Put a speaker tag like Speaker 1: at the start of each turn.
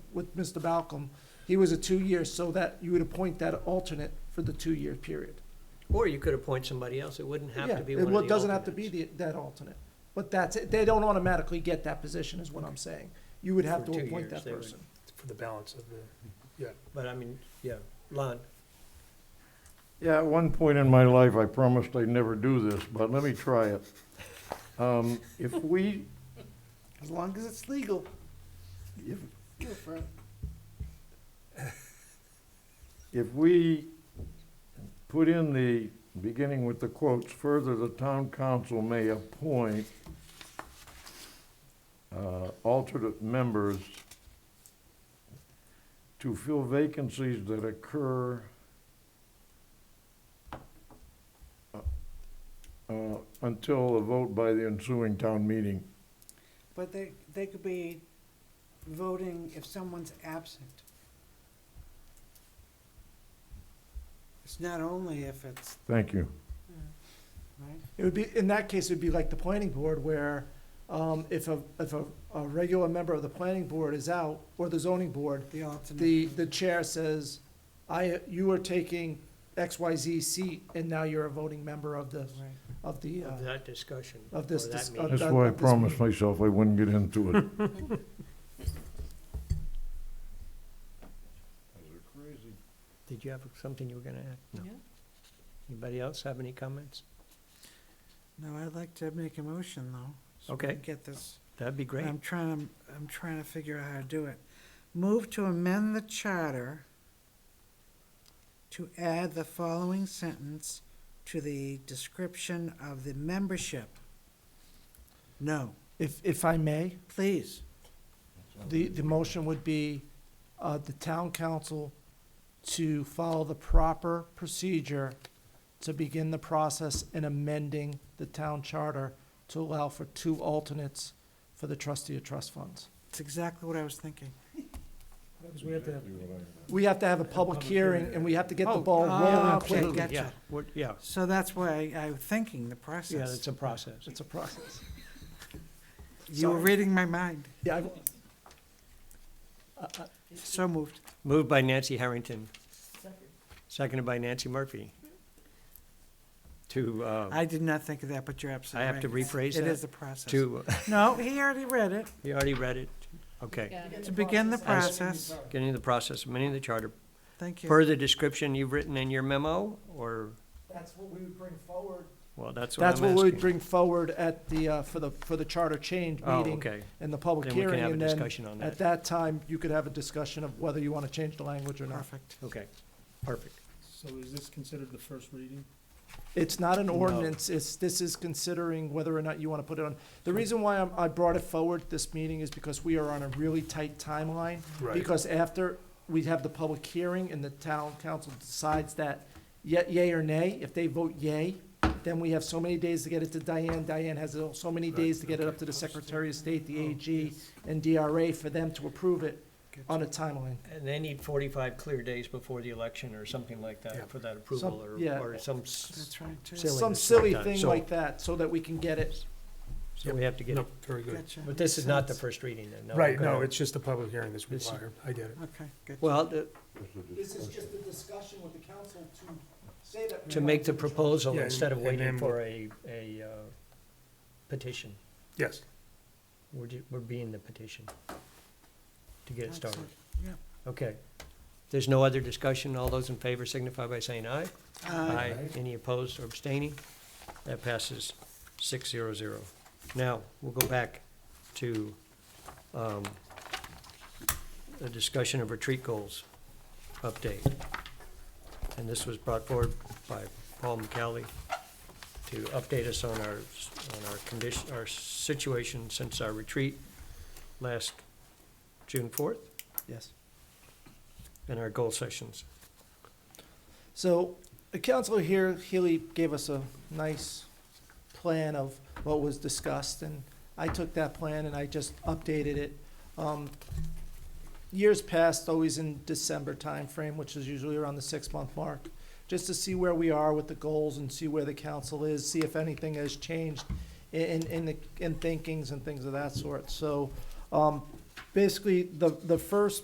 Speaker 1: with Mr. Balcom, he was a two-year, so that you would appoint that alternate for the two-year period.
Speaker 2: Or you could appoint somebody else. It wouldn't have
Speaker 1: Yeah,
Speaker 2: to be
Speaker 1: it
Speaker 2: one of the
Speaker 1: wa- doesn't have to be
Speaker 2: alternates.
Speaker 1: the, that alternate. But that's, it. they don't automatically get that position, is what I'm saying. You would have
Speaker 2: For
Speaker 1: to
Speaker 2: two
Speaker 1: appoint
Speaker 2: years,
Speaker 1: that
Speaker 2: they would.
Speaker 1: person.
Speaker 3: for the balance of the,
Speaker 2: But I mean, yeah, Lon,
Speaker 4: Yeah, at one point in my life, I promised I'd never do this, but let me try it. Um, If we,
Speaker 5: As long as it's legal.
Speaker 4: if,
Speaker 5: Go for it.
Speaker 4: if we put in the, beginning with the quotes, further, the town council may appoint uh, alternate members to fill vacancies that occur uh, uh, until a vote by the ensuing town meeting.
Speaker 5: But they, they could be voting if someone's absent. It's not only if it's,
Speaker 4: Thank you.
Speaker 5: right?
Speaker 1: It would be, in that case, it'd be like the planning board where, um, if a, if a, a regular member of the planning board is out, or the zoning board,
Speaker 5: The alternate.
Speaker 1: the, the chair says, I, you are taking XYZ seat, and now you're a voting member of the,
Speaker 5: Right.
Speaker 1: of the, uh,
Speaker 2: of that discussion.
Speaker 1: of this
Speaker 2: or that
Speaker 1: dis- of
Speaker 2: meeting.
Speaker 4: That's
Speaker 1: that-
Speaker 4: why I
Speaker 1: this
Speaker 4: promised
Speaker 1: meeting.
Speaker 4: myself I wouldn't get into it.
Speaker 2: Did you have something you were gonna add?
Speaker 5: No. Yeah.
Speaker 2: Anybody else have any comments?
Speaker 5: No, I'd like to make a motion though. so we
Speaker 2: Okay.
Speaker 5: can Get this.
Speaker 2: That'd be great.
Speaker 1: Um,
Speaker 5: I'm trying, to- I'm trying to figure out how to do it. Move to amend the charter to add the following sentence to the description of the membership. No,
Speaker 1: If, if I may,
Speaker 5: please.
Speaker 1: the, the motion would be, uh, the town council to follow the proper procedure to begin the process in amending the town charter to allow for two alternates for the trustee of trust funds.
Speaker 5: It's exactly what I was thinking.
Speaker 1: We have to have a public hearing, and we have to get the ball
Speaker 5: Oh,
Speaker 1: rolling
Speaker 5: okay,
Speaker 1: quickly.
Speaker 5: gotcha.
Speaker 2: Yeah, we're- yeah,
Speaker 5: So that's why I, I was thinking the
Speaker 2: yeah, it's
Speaker 5: process.
Speaker 2: a process.
Speaker 1: It's a process.
Speaker 5: You were
Speaker 1: sorry.
Speaker 5: reading my mind.
Speaker 1: Yeah, I-
Speaker 5: So moved.
Speaker 2: Moved by Nancy Harrington. Seconded by Nancy Murphy. To, uh,
Speaker 5: I did not think of that, but you're
Speaker 2: I
Speaker 5: absolutely right.
Speaker 2: have to
Speaker 5: It's-
Speaker 2: rephrase
Speaker 5: It
Speaker 2: that?
Speaker 5: is a process.
Speaker 2: to,
Speaker 5: No, he already read it.
Speaker 2: you already read it, okay.
Speaker 5: To begin the process,
Speaker 2: Getting the process, amending the charter.
Speaker 5: thank you.
Speaker 2: Further description you've written in your memo, or,
Speaker 1: That's what we would bring forward.
Speaker 2: well, that's what I'm
Speaker 1: That's what we would
Speaker 2: asking.
Speaker 1: bring forward at the, uh, for the, for the charter change
Speaker 2: Oh,
Speaker 1: meeting
Speaker 2: okay.
Speaker 1: and the public
Speaker 2: Then we can
Speaker 1: hearing.
Speaker 2: have a
Speaker 1: And then
Speaker 2: discussion on
Speaker 1: at
Speaker 2: that.
Speaker 1: that time, you could have a discussion of whether you want to change the language or not.
Speaker 5: Perfect.
Speaker 2: Okay, perfect.
Speaker 3: so is this considered the first reading?
Speaker 1: It's not an
Speaker 2: No.
Speaker 1: ordinance, it's, this is considering whether or not you want to put it on. The reason why I'm, I brought it forward this meeting is because we are on a really tight timeline. Because after we have the public hearing and the town council decides that ye- yay or nay, if they vote yay, then we have so many days to get it to Diane, Diane has so many days to get it up to the Secretary of State, the
Speaker 3: Oh,
Speaker 1: AG,
Speaker 5: Oh,
Speaker 1: and DRA for them to approve it on a timeline.
Speaker 2: And they need forty-five clear days before the election or something like
Speaker 3: Yeah.
Speaker 2: that for that approval or,
Speaker 1: yeah.
Speaker 2: or some, s-
Speaker 5: That's right, too.
Speaker 2: Silly.
Speaker 1: Some
Speaker 2: it's
Speaker 1: silly
Speaker 2: like that.
Speaker 1: thing
Speaker 2: So-
Speaker 1: like that, so that we can get it.
Speaker 2: so we have to get
Speaker 3: No,
Speaker 2: it.
Speaker 3: very good.
Speaker 5: Gotcha.
Speaker 2: But this is not the
Speaker 5: Makes sense.
Speaker 2: first reading then, no?
Speaker 3: Right,
Speaker 2: Okay.
Speaker 3: no, it's just a public hearing that's
Speaker 2: This-
Speaker 3: required. I get it.
Speaker 5: Okay, good.
Speaker 2: Well, the-
Speaker 1: This is just a discussion with the council to say that.
Speaker 2: to make the proposal
Speaker 3: Yeah,
Speaker 2: instead of
Speaker 3: and- and
Speaker 2: waiting
Speaker 3: then-
Speaker 2: for a, a uh, petition.
Speaker 3: Yes.
Speaker 2: We're, ju- we're being the petition to get it
Speaker 5: Excellent.
Speaker 2: started.
Speaker 5: Yeah.
Speaker 2: Okay. There's no other discussion. All those in favor signify by saying aye.
Speaker 5: Uh,
Speaker 2: Any opposed or abstaining? That passes six zero zero. Now, we'll go back to um, the discussion of retreat goals update. And this was brought forward by Paul McCallie to update us on our, on our condition, our situation since our retreat last June fourth
Speaker 1: Yes.
Speaker 2: and our goal sessions.
Speaker 1: So the counselor here, Healy, gave us a nice plan of what was discussed, and I took that plan and I just updated it. Um, Years past, always in December timeframe, which is usually around the six-month mark, just to see where we are with the goals and see where the council is, see if anything has changed in, in- in, the- in thinkings and things of that sort. So um, basically, the, the first